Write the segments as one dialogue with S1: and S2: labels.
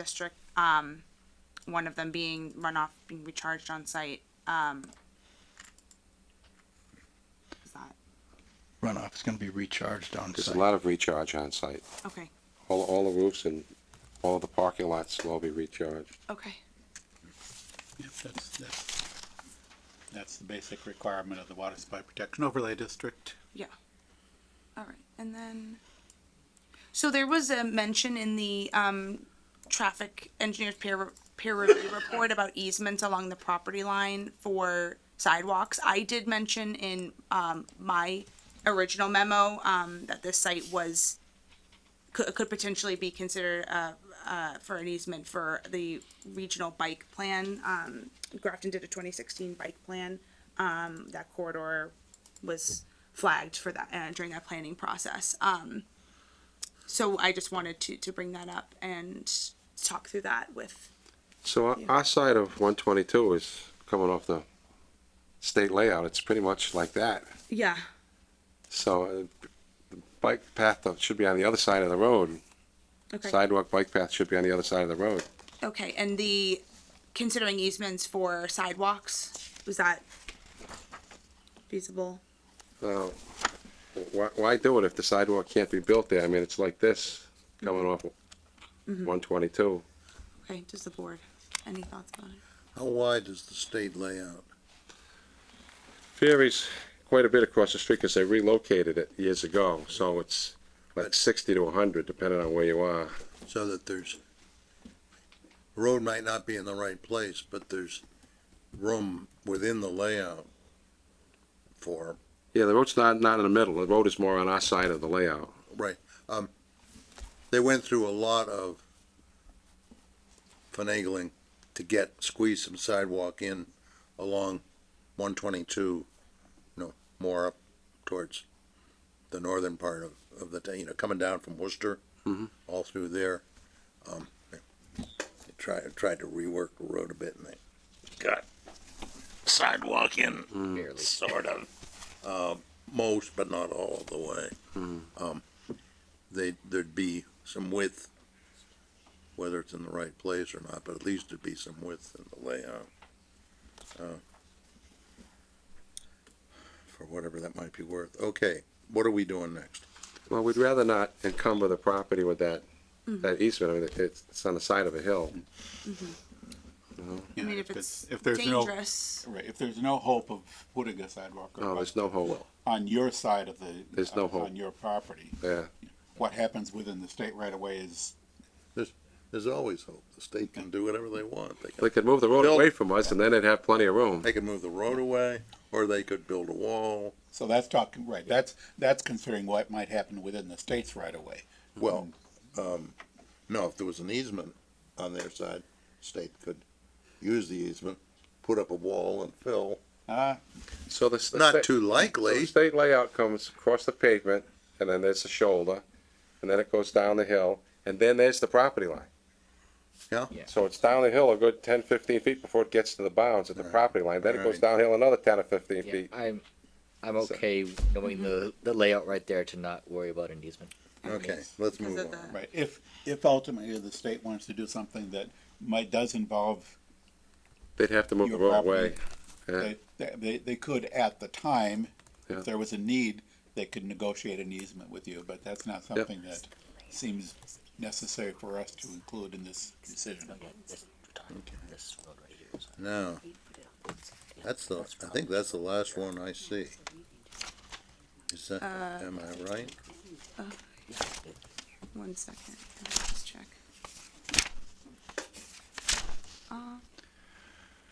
S1: district, um, one of them being runoff being recharged on site, um. Is that,
S2: runoff is gonna be recharged on
S3: There's a
S2: site.
S3: lot of recharge on site.
S1: okay,
S3: All, all the roofs and all the parking lots will all be recharged.
S1: okay,
S4: Yep, that's, that's, that's the basic requirement of the water supply protection overlay district.
S1: yeah. Alright, and then, so there was a mention in the, um, traffic engineers peer, peer review report about easements along the property line for sidewalks. I did mention in, um, my original memo, um, that this site was, could, could potentially be considered, uh, uh, for an easement for the regional bike plan. Um, Grafton did a twenty sixteen bike plan. Um, that corridor was flagged for that, uh, during that planning process. Um, so I just wanted to, to bring that up and talk through that with,
S3: So our, our side of one twenty-two is coming off the state layout. It's pretty much like that.
S1: yeah,
S3: So uh, the bike path though should be on the other side of the road.
S1: okay.
S3: Sidewalk bike path should be on the other side of the road.
S1: Okay, and the, considering easements for sidewalks, was that feasible?
S3: Now, why, why do it if the sidewalk can't be built there? I mean, it's like this coming off one twenty-two.
S1: Okay, does the board, any thoughts about it?
S5: How wide is the state layout?
S3: varies quite a bit across the street because they relocated it years ago, so it's like sixty to hundred, depending on where you are.
S5: So that there's, road might not be in the right place, but there's room within the layout for,
S3: Yeah, the road's not, not in the middle, the road is more on our side of the layout.
S5: right, um, they went through a lot of finagling to get, squeeze some sidewalk in along one twenty-two, you know, more up towards the northern part of, of the, ta- you know, coming down from Worcester, all through there. Um, they tried, tried to rework the road a bit and they got sidewalk in, sort of. Um, most, but not all of the way. Um, they, there'd be some width, whether it's in the right place or not, but at least there'd be some width in the layout. Uh, For whatever that might be worth. Okay, what are we doing next?
S3: Well, we'd rather not encumber the property with that,
S5: Mm-hmm.
S3: that easement, I mean, it's, it's on the side of a hill.
S1: I
S4: Yeah,
S1: mean, if
S4: it's-
S1: it's
S4: if there's no-
S1: dangerous,
S4: Right, if there's no hope of putting a sidewalk or
S3: No,
S4: bike
S3: Oh, there's no hole,
S4: on your side of the.
S3: There's no
S4: on-
S3: hope.
S4: On your property,
S3: yeah.
S4: what happens within the state right away is,
S5: There's always hope. The state can do whatever they want. They
S3: They
S5: can,
S3: could move the road
S5: Build-
S3: away from us and then they'd have plenty of room.
S5: they can move the road away, or they could build a wall.
S4: so that's talking, right, that's, that's considering what might happen within the states right away.
S5: Well, um, no, if there was an easement on their side, state could use the easement, put up a wall and fill.
S4: Ah,
S3: So the. the sta-
S5: Not too
S3: So the
S5: likely.
S3: state layout comes across the pavement, and then there's a shoulder, and then it goes down the hill, and then there's the property line.
S5: Yeah.
S3: So it's down the hill a good 10, 15 feet before it gets to the bounds at the property line, then it goes
S5: Right.
S3: downhill another ten or fifteen
S6: Yeah,
S3: feet.
S6: I'm, I'm
S3: So-
S6: okay knowing the, the layout right there to not worry about an easement.
S5: Okay, let's
S1: because
S5: move
S1: of
S5: on.
S1: the,
S4: right, if, if ultimately the state wants to do something that might, does involve
S3: They'd have to move the
S4: Your
S3: road Uh, away.
S4: property.
S3: Yeah.
S4: They, they, they could at the time,
S3: Yeah.
S4: if there was a need, they could negotiate an easement with you, but that's not something that seems necessary for us to include in this decision.
S5: No, that's the, I think that's the last one I see. Is that, am I right?
S1: one second, let me just check. Uh,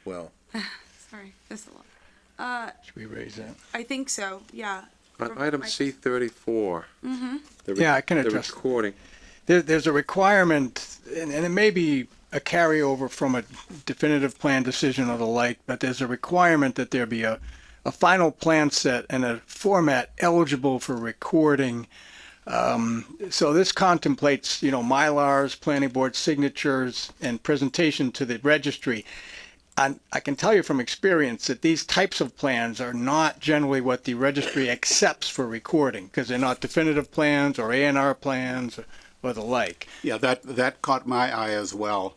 S5: Well,
S1: sorry, that's a lot. Uh,
S2: Should we raise that?
S1: I think so, yeah.
S3: On item C thirty-four. the re-
S2: Yeah, I can
S3: the
S2: address-
S3: Recording,
S2: There, there's a requirement, and, and it may be a carryover from a definitive plan decision or the like, but there's a requirement that there be a, a final plan set and a format eligible for recording. Um, so this contemplates, you know, Mylars, planning board signatures, and presentation to the registry. And I can tell you from experience that these types of plans are not generally what the registry accepts for recording because they're not definitive plans or A and R plans
S7: or the like.
S4: Yeah, that, that caught my eye as well.